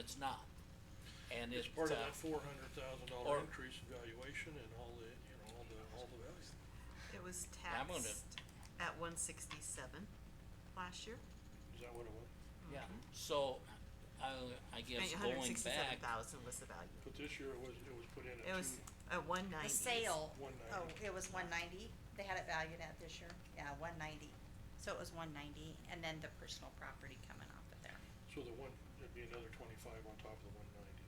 it's not. And It's it, part of uh, that four hundred thousand or- dollar increase in valuation and all the, you know, all the, all the value. It was I'm gonna- taxed at one sixty-seven last year, Is that what it was? yeah, so, I, I and guess hundred and going sixty-seven back, thousand was the value. But this year it was, it was put in at It was two, at one ninety. The sale, one oh, ninety. it was one ninety, they had it valued at this year, yeah, one ninety. So it was one ninety, and then the personal property coming off of there, So the one, there'd be another twenty-five on top of the one ninety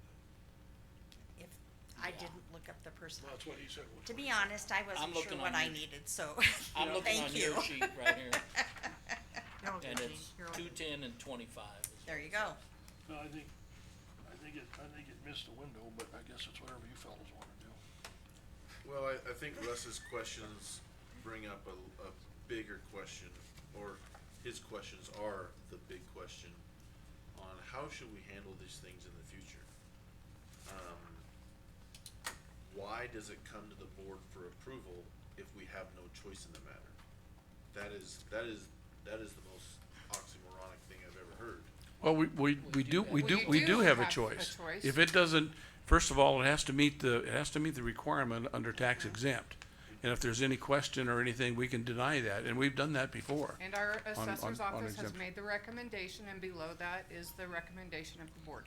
then. if, I Yeah. didn't look up the personal. Well, that's what he said was. To be honest, I wasn't sure looking on what I your- needed, so, I'm Yeah. looking thank on you. your sheet right here, You're all good, and Jean. it's You're all two good. ten and twenty-five. is- There you go, No, I think, I think it, I think it missed the window, but I guess it's whatever you fellas wanna do. Well, I, I think Russ's questions bring up a, a bigger question, or his questions are the big question on how should we handle these things in the future? Um, why does it come to the board for approval if we have no choice in the matter? That is, that is, that is the most oxymoronic thing I've ever heard. Well, we, we, we do, we do, we do have a choice. If it doesn't, first of all, it has to meet the, it has to meet the requirement under tax exempt. And if there's any question or anything, we can deny that, and we've done that before. And our on- assessor's on office has exemption. made the recommendation, and below that is the recommendation of the board.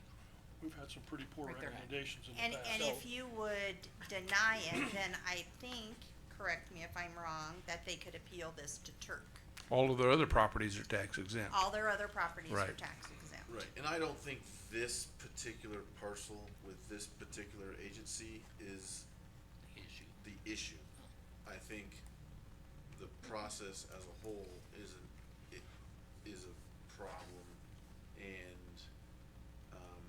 We've had some pretty poor Right there. recommendations in and, the past. and if you would deny it, then I think, correct me if I'm wrong, that they could appeal this to Turk. All of their other properties are tax exempt. All their other properties are Right. tax exempt. Right, and I don't think this particular parcel with this particular agency is Issue. the issue. I think the process as a whole isn't, it is a problem and, um,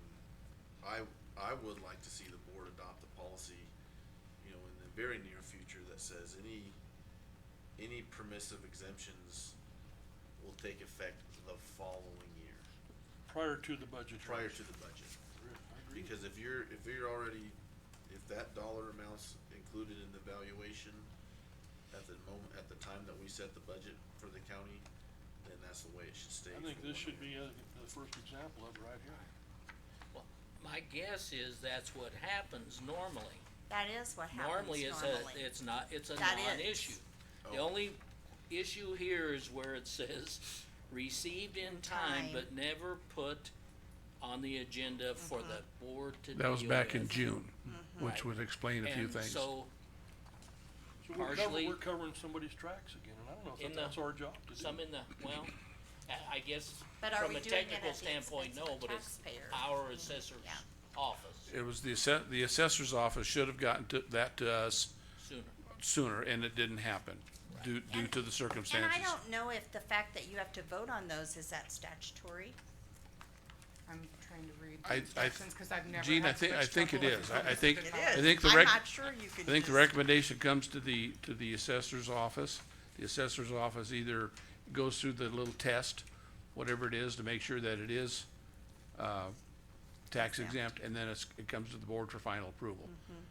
I, I would like to see the board adopt a policy, you know, in the very near future that says any, any permissive exemptions will take effect the following year, Prior to the budget. prior to the budget. I agree. Because if you're, if you're already, if that dollar amount's included in the valuation at the moment, at the time that we set the budget for the county, then that's the way it should stay. I think for this one should year. be uh, the first example of it right here. Well, My guess is that's what happens normally. That is what happens Normally, it's normally. a, it's not, it's a That non-issue. The Oh. only issue here is where it says, received in time, Time. but never put on the agenda for Mm-hmm. the board to deal That was back in with. June, Mm-hmm. which would explain a few And things. so, So we're Partially- covering, we're covering somebody's tracks again, and I don't know In if the- that's our job to do. some in the, well, I, I guess, But are from we a doing it technical at the standpoint, expense no, of the but it's taxpayer? our assessor's Yeah. office It was the assess, the assessor's office should have gotten to, that to us sooner. sooner, and it didn't happen due, due And- to the And circumstances. I don't know if the fact that you have to vote on those, is that statutory? I'm trying to read I- I- the instructions, cause I've never Gene, I had think- I such think it trouble with is. it. I- I think- It I is. think the rec- I'm not sure you can I think the just- recommendation comes to the, to the assessor's office. The assessor's office either goes through the little test, whatever it is, to make sure that it is, uh, tax exempt, and then it's, it comes to the board for final approval. Mm-hmm,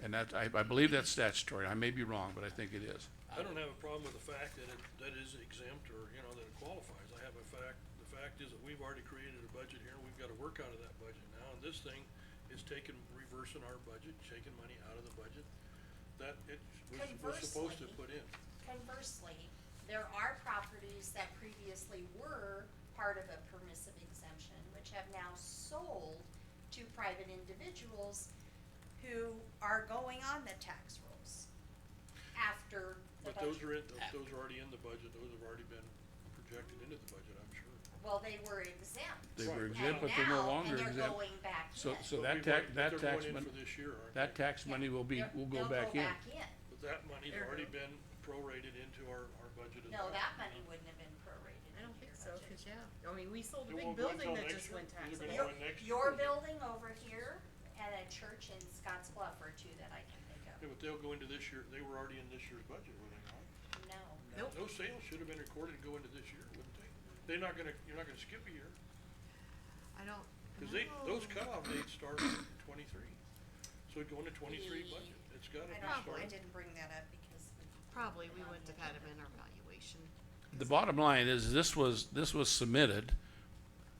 And that, I, I believe that's statutory. I may be wrong, but I think it is. I don't have a problem with the fact that it, that is exempt or, you know, that it qualifies. I have a fact, the fact is that we've already created a budget here and we've gotta work out of that budget now. And this thing is taking, reversing our budget, taking money out of the budget that it was, was supposed to Conversely- put in. Conversely, there are properties that previously were part of a permissive exemption, which have now sold to private individuals Who are going on the tax rolls. after the But those budget. are in, Ah. those are already in the budget. Those have already been projected into the budget, I'm sure. Well, they were exempt. They were were Right. exempt, And but they're no now- longer And they're exempt. going back in. So, so But that we've tax, already- but that they're tax going in money, For this year, aren't that they? tax Yeah. money will be, They're- will go they'll back in. back in. But that money's already been prorated into our, our budget as well. No, that money wouldn't have been prorated I don't think into so, your budget. cause yeah, I mean, we sold It a big won't go building until that next just year? went Is it taxable. gonna Your, go in next your year? building over here and a church in Scotts Bluff are two that I can think Yeah, but they'll go into this year, they were already in this year's budget, were they not? of, no. Nope. Those sales should have been recorded and go into this year, wouldn't they? They're not gonna, you're not gonna skip a year, I don't. cause they, know. those cutoff dates start in twenty-three. So it'd go into twenty-three budget, it's gotta I be don't, I started. didn't bring that up because we Probably, we wouldn't have had them in our valuation. The bottom line is, this was, this was submitted